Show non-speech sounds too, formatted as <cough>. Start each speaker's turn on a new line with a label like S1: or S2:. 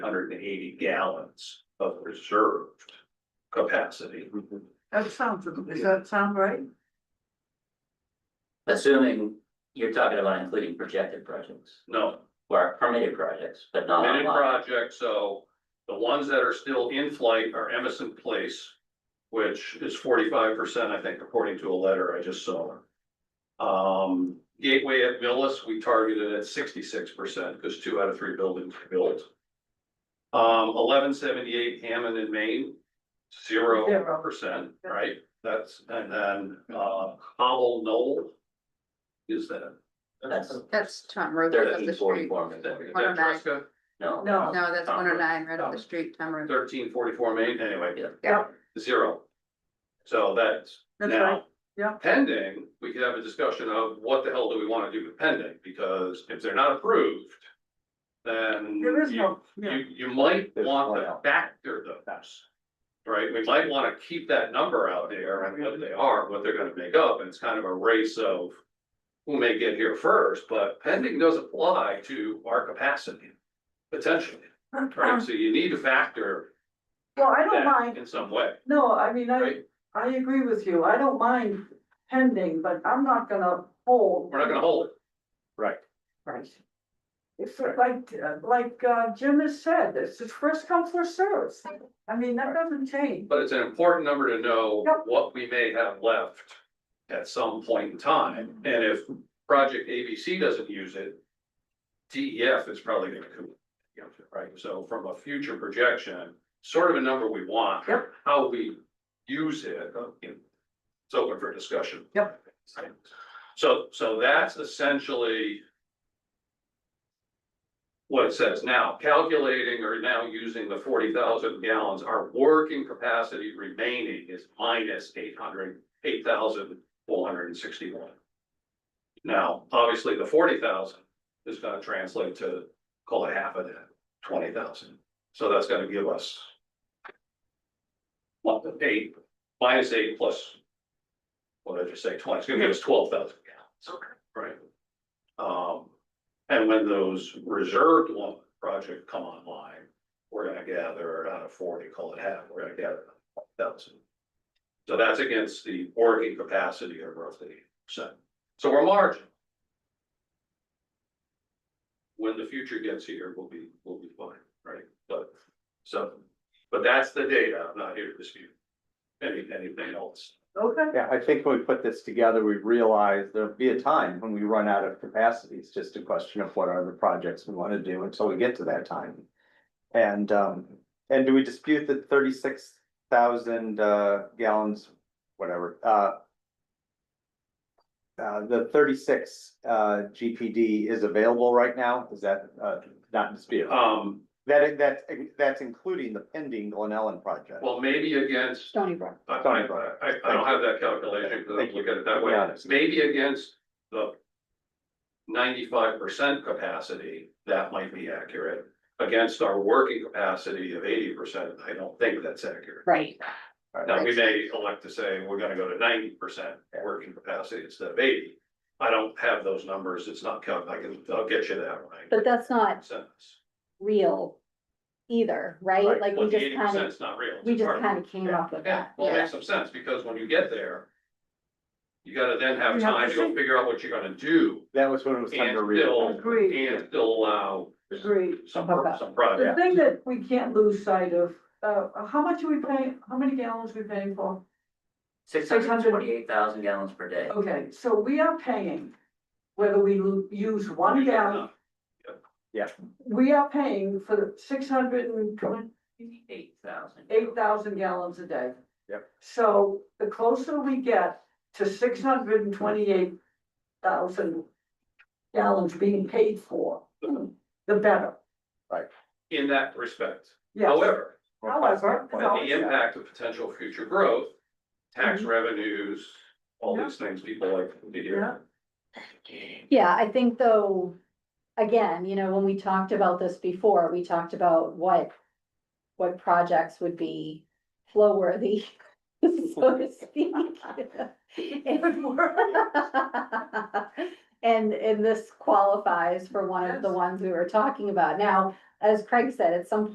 S1: hundred and eighty gallons of reserved capacity.
S2: That sounds, does that sound right?
S3: Assuming you're talking about including projected projects
S1: No,
S3: or permitted projects, but not
S1: committed
S3: online.
S1: projects, so the ones that are still in flight are Emerson Place, which is forty-five percent, I think, according to a letter I just saw. Um, Gateway at Millis, we targeted at sixty-six percent, because two out of three buildings were built. Um, eleven seventy-eight Hammond and Maine, zero
S2: Zero.
S1: percent, right? That's, and then, uh, Howell Knoll. Is that?
S3: That's
S4: That's Tom Road right
S1: E
S4: up
S3: thirteen
S4: the
S3: forty
S4: street.
S3: four.
S1: Is that is
S4: One oh
S1: that
S4: nine.
S1: Tresca?
S3: No.
S2: No.
S4: No, that's
S1: Tom
S4: one oh
S1: Road.
S4: nine, right up the
S1: Tom.
S4: street, Tom Road.
S1: thirteen forty-four Main, anyway,
S3: Yeah.
S4: Yeah.
S1: zero. So that's
S2: That's
S1: now.
S2: right, yeah.
S1: Pending, we could have a discussion of what the hell do we wanna do with pending, because if they're not approved. Then.
S2: There is
S1: you-
S2: no, yeah.
S1: You, you might
S5: There's
S1: want
S5: one
S1: to
S5: out.
S1: factor those. Right, we might wanna keep that number out there, and what they are, what they're gonna make up, and it's kind of a race of. Who may get here first, but pending does apply to our capacity, potentially, right, so you need to factor
S2: Well, I don't
S1: that
S2: mind,
S1: In some way,
S2: no, I mean, I,
S1: right?
S2: I agree with you, I don't mind pending, but I'm not gonna hold.
S1: We're not gonna hold it.
S5: Right.
S2: Right. It's sort of like, uh, like uh, Jim has said, it's just first come, first served. I mean, that doesn't change.
S1: But it's an important number to know
S2: Yep.
S1: what we may have left at some point in time. And if project ABC doesn't use it, DEF is probably gonna come, you know, right? So from a future projection, sort of a number we want.
S2: Yep.
S1: How we use it, uh, you know, it's open for discussion.
S2: Yep.
S1: So, so that's essentially what it says now, calculating or now using the forty thousand gallons, our working capacity remaining is minus eight hundred, eight thousand four hundred and sixty-one. Now, obviously, the forty thousand is gonna translate to, call it half of that, twenty thousand, so that's gonna give us what, the eight, minus eight plus, what did I just say, twenty, it's gonna give us twelve thousand gallons. Okay. Right. Um, and when those reserved one project come online, we're gonna gather out of forty, call it half, we're gonna gather thousand. So that's against the working capacity of roughly percent. So we're marginal. When the future gets here, we'll be, we'll be fine, right? But, so, but that's the data. I'm not here to dispute any, anything else.
S2: Okay.
S5: Yeah, I think when we put this together, we realized there'll be a time when we run out of capacity. It's just a question of what are the projects we want to do until we get to that time. And um, and do we dispute the thirty-six thousand uh gallons, whatever, uh. Uh, the thirty-six uh GPD is available right now? Is that uh not disputed?
S1: Um,
S5: That that that's including the pending Glen Ellen project.
S1: well, maybe against
S4: Stony Brook.
S1: I, I, I, I don't have that calculation, because
S5: Thank
S1: I'm
S5: you.
S1: looking at it that way,
S5: Yeah, that's-
S1: maybe against the. Ninety-five percent capacity, that might be accurate, against our working capacity of eighty percent, I don't think that's accurate.
S4: Right.
S1: Now, we
S4: Makes
S1: may elect to say, we're gonna go to ninety percent working capacity instead of eighty. I don't have those numbers, it's not count, I can, I'll get you that when
S6: But that's
S1: I
S6: not
S1: send this.
S6: real either, right?
S5: Right.
S6: Like
S1: Well, the
S6: we just
S1: eighty percent
S6: kind of,
S1: is not real. it's
S6: we
S1: a
S6: just
S1: target.
S6: kind of came
S5: Yeah.
S6: up with
S1: Yeah,
S6: that.
S1: well, it makes some sense, because when you get there. You gotta then have
S2: You have
S1: time to
S2: to
S1: go
S2: see.
S1: figure out what you're gonna do
S5: That was when it was time
S1: and
S5: to read.
S1: still,
S2: Agreed.
S1: and still allow
S2: Agreed.
S1: some,
S6: Hookup.
S1: some project.
S2: The thing that we can't lose sight of, uh, how much are we paying, how many gallons are we paying for?
S3: Six hundred twenty eight thousand gallons per day.
S2: Okay, so we are paying, whether we lo- use one gallon, we are paying for the six hundred and twenty-eight
S3: Eight thousand.
S2: eight thousand gallons a day.
S5: Yep.
S2: So the closer we get to six hundred and twenty-eight thousand gallons being paid for, the better.
S1: In that respect,
S2: Yes. <laughs>
S1: however,
S2: However,
S1: the impact of potential future growth,
S2: Mm-hmm.
S1: tax revenues, all these things people like to hear.
S6: Yeah, I think though, again, you know, when we talked about this before, we talked about what, what projects would be flow worthy, <laughs> so
S1: <laughs>
S6: to speak.
S2: Good work.
S6: And, and this qualifies for one of the
S2: Yes.
S6: ones we were talking about. Now, as Craig said, at some